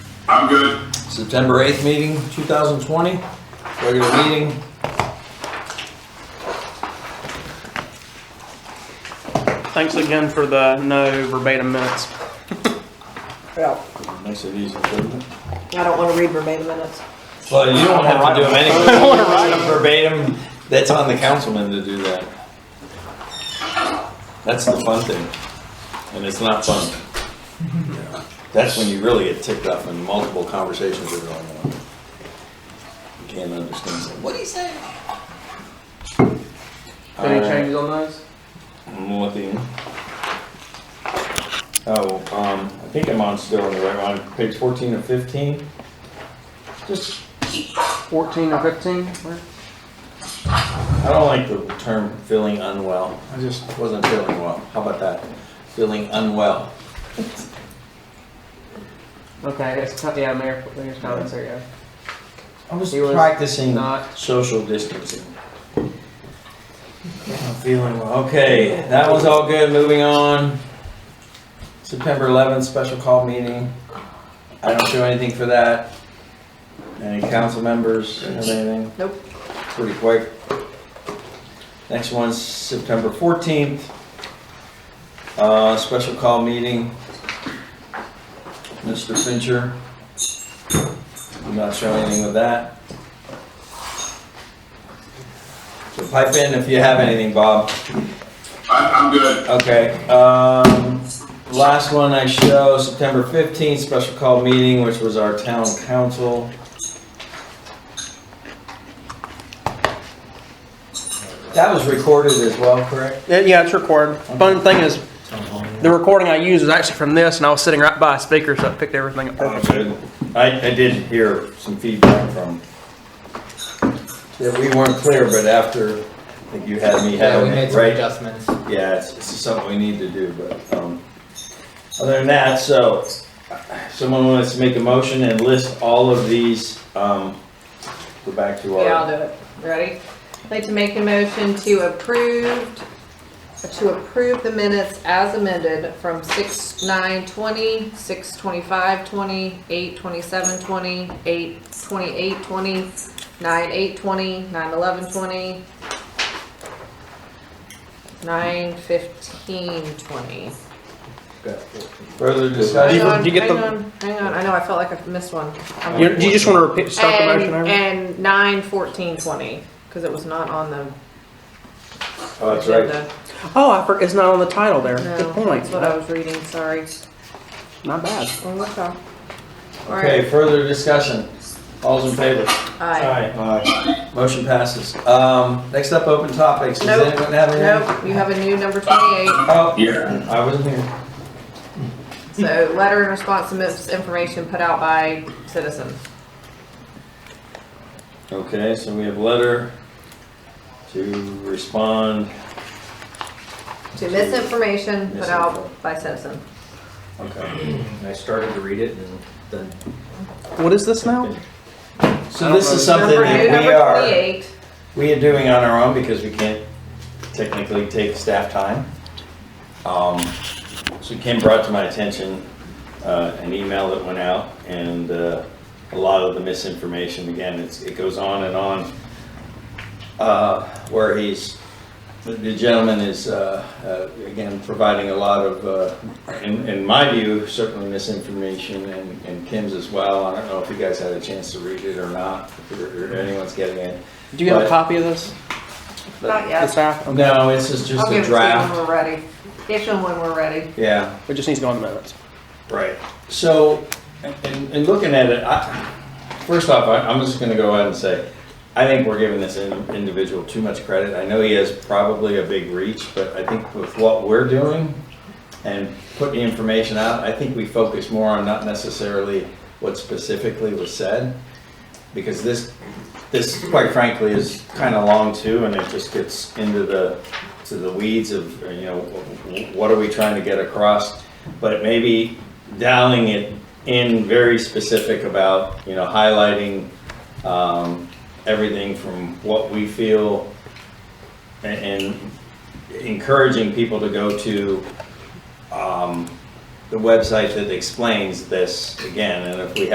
good. September 8th meeting, 2020, regular meeting. Thanks again for the no verbatim minutes. Well, Makes it easy, doesn't it? I don't wanna read verbatim minutes. Well, you don't have to do them anyway. Verbatim, that's on the councilman to do that. That's the fun thing, and it's not fun. That's when you really get ticked off and multiple conversations are going on. You can't understand, so, what do you say? Any Uh, changes on those? I'm looking. Oh, um, I think I'm on still on the right one, page fourteen or fifteen. Just, 14 or 15? Where- I don't like the term feeling unwell. I just wasn't feeling well. How about that? Feeling unwell. Okay, it's, yeah, Mayor, Mayor's comments, there you I was He was practicing uh, not- social distancing. I'm feeling well. Okay, that was all good. Moving on. September 11th, special call meeting. I don't show anything for that. Any council members have anything? Nope. Pretty quick. Next one's September 14th. Uh, special call meeting. Mr. Fincher. I'm not showing anything with that. So pipe in if you have anything, Bob. I, I'm good. Okay, um, last one I show, September fifteenth, special call meeting, which was our town council. That was recorded as well, correct? go. Yeah, it's recorded. Fun thing is, the recording I used was actually from this, and I was sitting right by a speaker, so I picked everything up perfect. I, I did hear some feedback from, that we weren't clear, but after, I think you had me Yeah, we having made it, some right? adjustments. Yeah, it's, it's something we need to do, but, um, other than that, so, someone wants to make a motion and list all of these, um, go back to Yeah, I'll our, do it. Ready? I'd like to make a motion to approved, to approve the minutes as amended from six, nine, twenty, six, twenty-five, twenty, eight, twenty-seven, twenty, eight, twenty-eight, twenty, nine, eight, twenty, nine, eleven, twenty, nine, fifteen, twenty. further Hang discussion. on, Did you get hang the- on, hang on. I know, I felt like I missed one. I'm- You, you just want to repeat, start the motion And, over? and nine, fourteen, twenty, because it was not on the Oh, that's right. agenda. Oh, I for, it's not on the title there. Good No, point. that's what I was reading, sorry. Not bad. Well, okay. All right. Okay, further discussion. All's in favor? Aye. Aye. Motion passes. Um, next up, open topics. Does Nope. anyone have anything? Nope, you have a new number twenty-eight, Oh, Yeah. I wasn't here. so letter in response to misinformation put out by citizens. Okay, so we have letter to respond. To misinformation put out by citizen. Okay. And I started to read it and then. What is this now? So this is something Number new, that we number are. twenty-eight, We are doing on our own because we can't technically take staff time. Um, So Kim brought to my attention uh, an email that went out and uh, a lot of the misinformation, again, it's- it goes on and on. uh, Where he's, the- the gentleman is, uh, uh, again, providing a lot of, uh, in in my view, certainly misinformation and- and Kim's as well. I don't know if you guys had a chance to read it or not, or or anyone's getting it. Do you have a But- copy of this? not This yet. half? Okay. no, it's just just I'll a give it to you when draft. we're ready. Give them when we're ready. Yeah, It just needs to go on the minutes. right. So, and, and looking at it, I, first off, I, I'm just gonna go ahead and say, I think we're giving this in- individual too much credit. I know he has probably a big reach, but I think with what we're doing and putting the information out, I think we focus more on not necessarily what specifically was said. Because this, this quite frankly is kind of long too, and it just gets into the, to the weeds of, you know, what are we trying to get across? But maybe dialing it in very specific about, you know, highlighting, um, everything from what we feel a- and encouraging people to go to, um, the website that explains this again, and if we